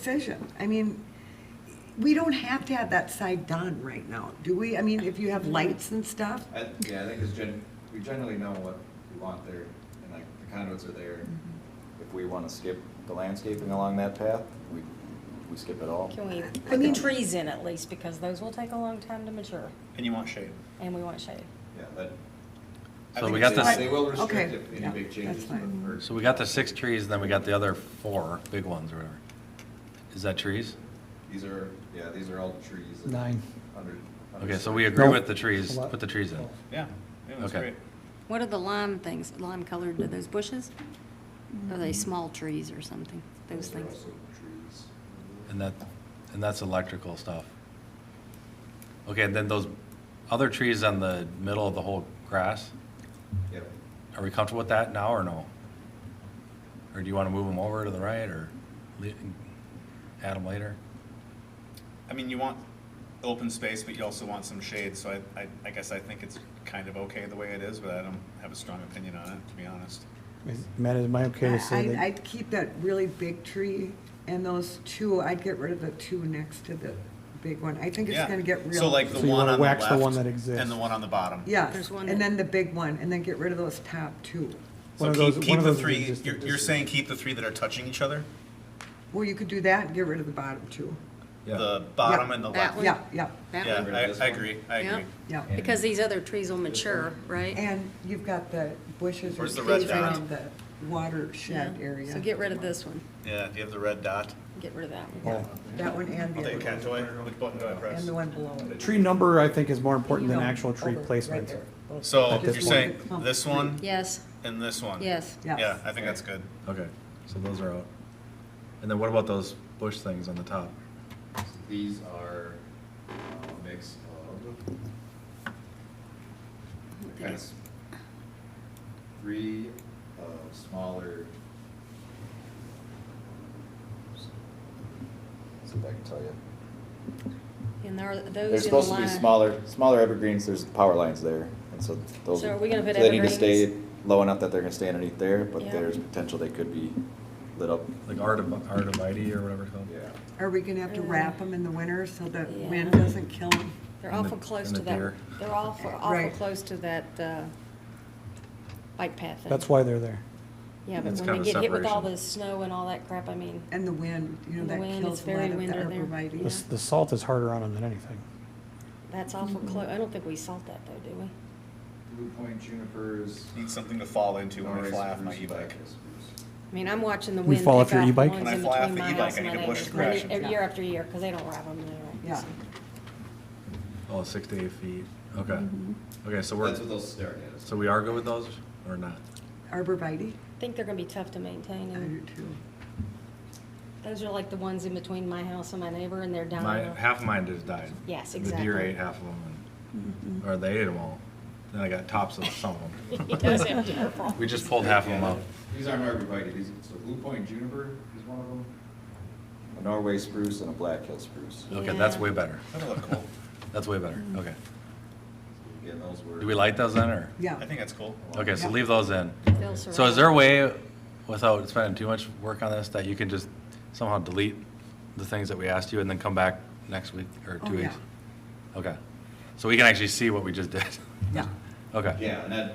decision. I mean, we don't have to have that side done right now, do we? I mean, if you have lights and stuff, I, yeah, I think it's gen, we generally know what we want there, and like, the conduits are there. If we wanna skip the landscaping along that path, we, we skip it all. Can we I put the mean- trees in at least, because those will take a long time to mature, And you want shade. and we want shade. Yeah, but. I So think we it's got they- this- They will restrict Okay, if any yeah, big that's changes. fine. or- So we got the six trees, and then we got the other four big ones or whatever. Is that trees? These are, yeah, these are all trees. that- Nine. Under. under- Okay, so we agree with the It's trees, a lot. put the trees in. Yeah, yeah, that's Okay. great. What are the lime things, lime colored, are those bushes? Are Mm-hmm. they small trees or something, those Those are things? also trees. And that, and that's electrical stuff. Okay, and then those other trees on the middle of the whole grass, Yep. are we comfortable with that now or no? Or do you want to move them over to the right or le- add them later? I mean, you want open space, but you also want some shade, so I, I, I guess I think it's kind of okay the way it is, but I don't have a strong opinion on it, to be honest. Is- Matt, am I okay to say I- that? I'd keep that really big tree and those two, I'd get rid of the two next to the big one. I think it's Yeah. gonna get real. So like the So you one wanna on the wax left. the one that exists. And the one on the bottom. Yeah, There's one and that- then the big one, and then get rid of those top two. One So of keep, those- one keep of the those is three, just a you're, you're distance. saying keep the three that are touching each other? Well, you could do that and get rid of the bottom two. The bottom Yeah. and the That left? one? Yeah, yeah, That Yeah, one? rid of this I, I one. agree, I Yeah. agree. yeah. And- Because these other trees will mature, right? And you've got the bushes or Where's the red trees dot? around the watershed area. So get rid of this one, Yeah, do you have the red dot? get rid of that one. Oh. That one and I'll the take a other cat one. toy, which button do I press? And the one below it. Tree number, I think, is more important You than know, actual tree over, right placement. there. Those- So At you're this saying point. this one Yes, and this one? yes. Yes. Yeah, I think that's good. Okay, so those are out. And then what about those bush things on the top? These are uh, a mix of kind of three uh, smaller. See if I can tell you. And there are They're those in the supposed to be line. smaller, smaller evergreens, there's power lines there, and so those. So are we gonna put so They need to stay evergreens? low enough that they're gonna stay underneath there, but Yeah. there's potential they could be lit up. Like artiv- artivite or whatever it's called? Yeah. Are we gonna have to wrap them in the winter so the Uh, Yeah. wind doesn't kill them? They're And the- awful close and to the that, deer. they're awful, awful Right. close to that, uh, bike path. thing. That's why they're there. Yeah, but It's when kind we of get hit with all separation. the snow and all that crap, I mean, And the wind, you know, And the that wind, kills it's a lot very of the windy there. The s- arborvitae. the salt is harder on them than anything. that's awful Mm-hmm. close, I don't think we salt that though, do we? Blue Point junipers. Need something to fall into when I fly off my e-bike. I mean, I'm watching the You wind. fall off pick your up e-bike? ones When I in fly off between the my e-bike, house I and need my to push neighbor's. crash Every- into Year it. after year, because they don't wrap them anymore. Yeah. Oh, six to eight feet, okay. Mm-hmm. Okay, so we're, That's what those start as. so we are good with those or not? Arborvitae, I think they're gonna be tough to maintain, I do and too. those are like the ones in between my house and my neighbor, and they're My, dying. half of mine just died. Yes, The deer exactly. Mm-hmm. ate half of them, and- or they ate them all. Then I got tops of some of them. He does have deer problems. We just pulled half of them up. These aren't arborvitae, these, so Blue Point juniper is one of them. A Norway spruce and a black hill spruce. Okay, that's Yeah. Mm-hmm. way better. That'll look cool. That's way better, okay. Again, those were. Do we light those in or? Yeah. I think that's cool. Okay, so Yeah. leave those in. They'll So is there a survive. way, without spending too much work on this, that you can just somehow delete the things that we asked you and then come back next week or Oh, two yeah. weeks? Okay, so we can actually see what we just did? Yeah. Okay. Yeah, and that.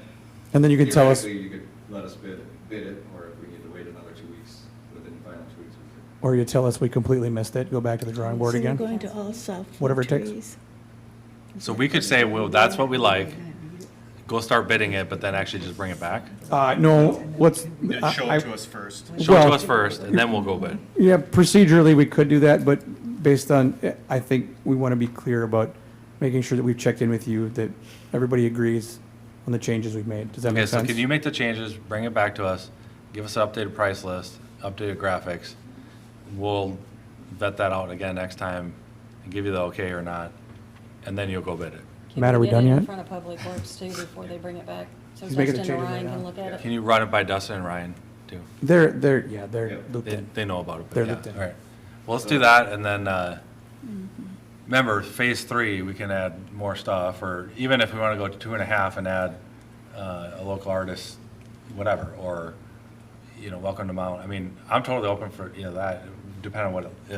And then you could tell us, theoretically, You could let us bid, bid it, or if we need to wait another two weeks, within final two weeks. we could- or you tell us we completely missed it, go back to the drawing board So you're again. going to all soft Whatever it takes. trees? So we could say, well, that's what we like, go start bidding it, but then actually just bring it back? Uh, no, let's. Then I- show I- it to us first. Show it Well- to us first, and then we'll go bid. Yeah, procedurally, we could do that, but based on, eh, I think we want to be clear about making sure that we've checked in with you, that everybody agrees on the changes we've made. Does that Okay, make so sense? can you make the changes, bring it back to us, give us an updated price list, updated graphics? We'll vet that out again next time and give you the okay or not, and then you'll go bid it. Can Matt, are we get done it yet? In front of Public Works too, before they bring it back, so He's making the Dustin or changes right Ryan can now. look at Can it. you run it by Dustin and Ryan too? They're, they're, yeah, Yeah. they're looped They, in. they know about it, They're but yeah, looped in. all right. Well, let's do that, and then, uh, remember, phase three, we can add more stuff, or even if we want to go to two and a half and add uh, a local artist, whatever, or, you know, welcome to Mount, I mean, I'm totally open for, you know, that, depending on what it is.